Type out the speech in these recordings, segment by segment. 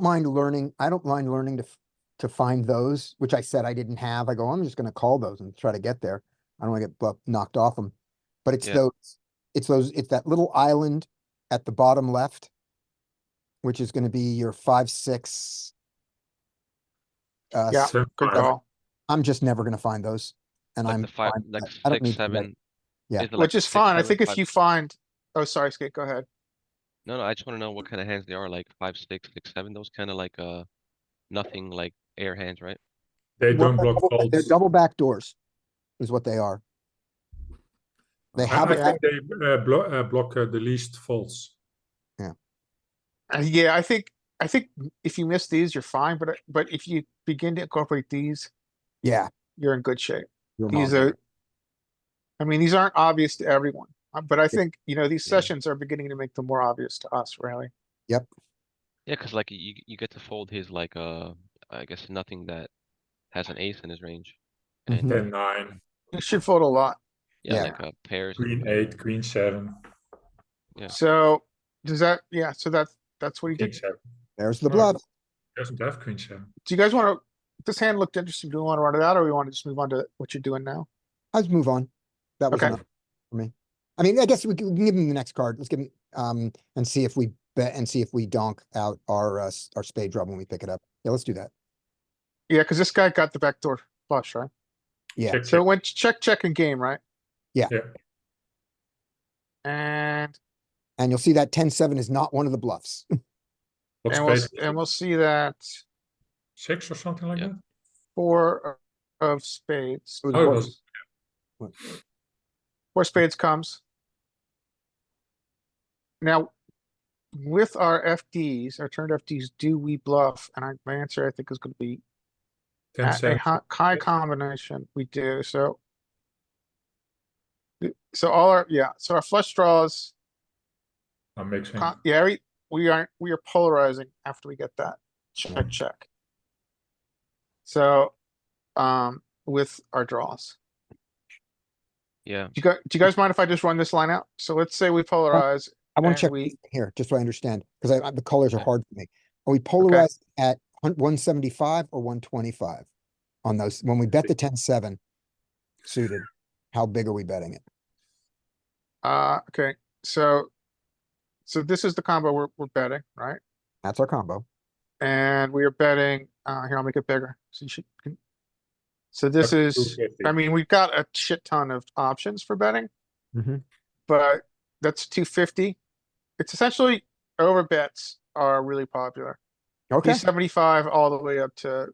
mind learning, I don't mind learning to, f- to find those, which I said I didn't have. I go, I'm just gonna call those and try to get there. I don't wanna get bu- knocked off them. But it's Yeah. those, it's those, it's that little island at the bottom left, which is gonna be your five, six. Uh, Yeah. s- Swim Good card. call. I'm just never gonna find those. And Like I'm, the five, fine with like that. I don't six, need to bet. seven. Yeah. it like Which is six, fine. I seven, think if five, you six? find, oh, sorry, Skate, go ahead. No, no, I just wanna know what kind of hands they are, like five, six, six, seven, those kind of like, uh, nothing like air hands, right? They Well, don't they're block double- They're faults. double back doors. Is what they are. They I have, I a think they uh, blo- uh, block uh, the least faults. Uh, yeah, I think, I think if you miss these, you're fine, but, uh, but if you begin to incorporate these, yeah. you're in good shape. you're These monitoring. are, I mean, these aren't obvious to everyone, uh, but I think, you know, these Yeah. sessions are beginning to make them more obvious to us, really. Yeah, cuz like you, you get to fold his like, uh, I guess nothing that has an ace in his range. Mm-hmm. And, Ten, nine, You should fold a lot. yeah, Yeah. like, uh, pairs. and queen whatever. eight, queen seven, Yeah. So, does that, yeah, so that's, that's what he king did. seven. There's the Alright. bluff. Doesn't have queen seven. Do you guys wanna, this hand looked interesting. Do we wanna run it out or we wanna just move on to what you're doing now? Let's move on. That was Okay. enough for me. I mean, I guess we can we can give him the next card. Let's give him, um, and see if we bet and see if we donk out our, uh, s- our spade drop when we pick it up. Yeah, let's do that. Yeah, cuz this guy got the backdoor flush, right? Yeah. Check, So it check. went check, check and game, right? Yeah, And, And you'll see that ten, seven is not one of the bluffs. what and we'll, space? and we'll see that Six or something like Yeah. that? four of spades. It was Oh, it one- was, Four spades comes. Now, with our FDs, our turned FDs, do we bluff? And I, my answer I think is gonna be ten, a a seven. hi- high combination, we do, so. So all our, yeah, so our flush draws, I'm mixing. con- yeah, we, we aren't, we are polarizing after we get that check, check. So, um, with our draws, Yeah, do you guys, do you guys mind if I just run this line out? So let's say we polarize I wanna and check we- here, just so I understand, cuz I, I- the colors are Okay. hard for me. Are we polarized at one seventy-five or one twenty-five? On those, when we bet the ten, seven suited, how big are we betting it? Uh, okay, so. So this is the combo we're, we're betting, right? That's our combo. And we are betting, uh, here, I'll make it bigger, so you should. can- So this is, I mean, we've got a shit ton of options for betting, Mm-hmm. but that's two fifty. It's essentially, over bets are really popular. Okay, Two seventy-five all the way up to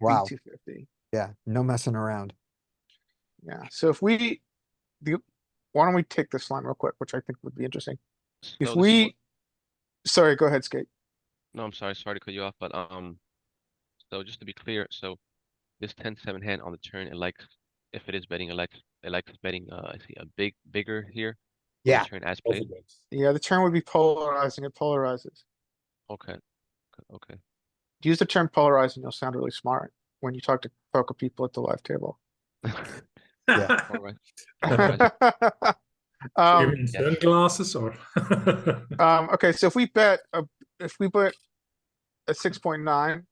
wow, two fifty. yeah, no messing around. Yeah, so if we, the, why don't we take this line real quick, which I think would be interesting. s- no, this If is what- we, sorry, go ahead, Skate. No, I'm sorry, sorry to cut you off, but, um, so just to be clear, so this ten, seven hand on the turn, it likes, if it is betting, it likes, it likes betting, uh, I see a big, bigger here. on the Yeah. Turn as played, It's Yeah, the term would be polarizing. It polarizes. okay, okay, okay. Use the term polarizing, you'll sound really smart when you talk to poker people at the live table. Yeah. Alright, alright, Um, Yeah. Sunglasses or? um, okay, so if we bet, a- if we put a six point nine,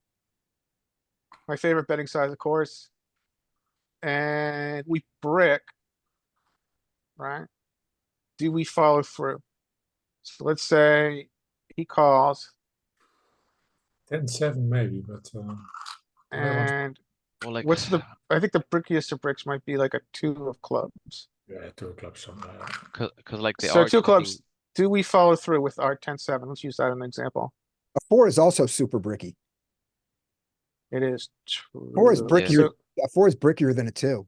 my favorite betting size, of course, and we brick, right? Do we follow through? So let's say he calls Ten, seven maybe, but, uh, Yeah, once- and well, like. What's the- I think the brickiest of bricks might be like a two of clubs. yeah, two clubs somewhere. Cause, cause like they So are. two clubs. keeping- Do we follow through with our ten seven? Let's use that as an example. A four is also super bricky. It is. Four is true. brickier. So- A four is brickier than a two.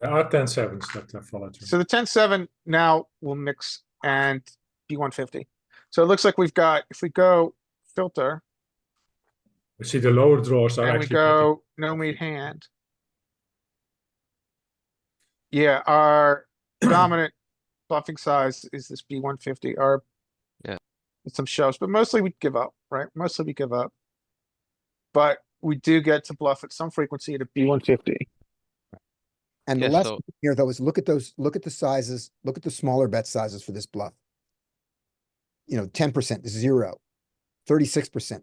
There are ten sevens that I follow too. So the ten seven now will mix and be one fifty. So it looks like we've got, if we go filter You see the lower drawers are and we actually. go no meat hand. Yeah, our dominant bluffing size is this B one fifty or Yeah. some shoves, but mostly we give up, right? Mostly we give up. But we do get to bluff at some frequency at a B one fifty. And the Yeah, lesson so- here though is look at those, look at the sizes, look at the smaller bet sizes for this bluff. You know, ten percent, zero, thirty-six percent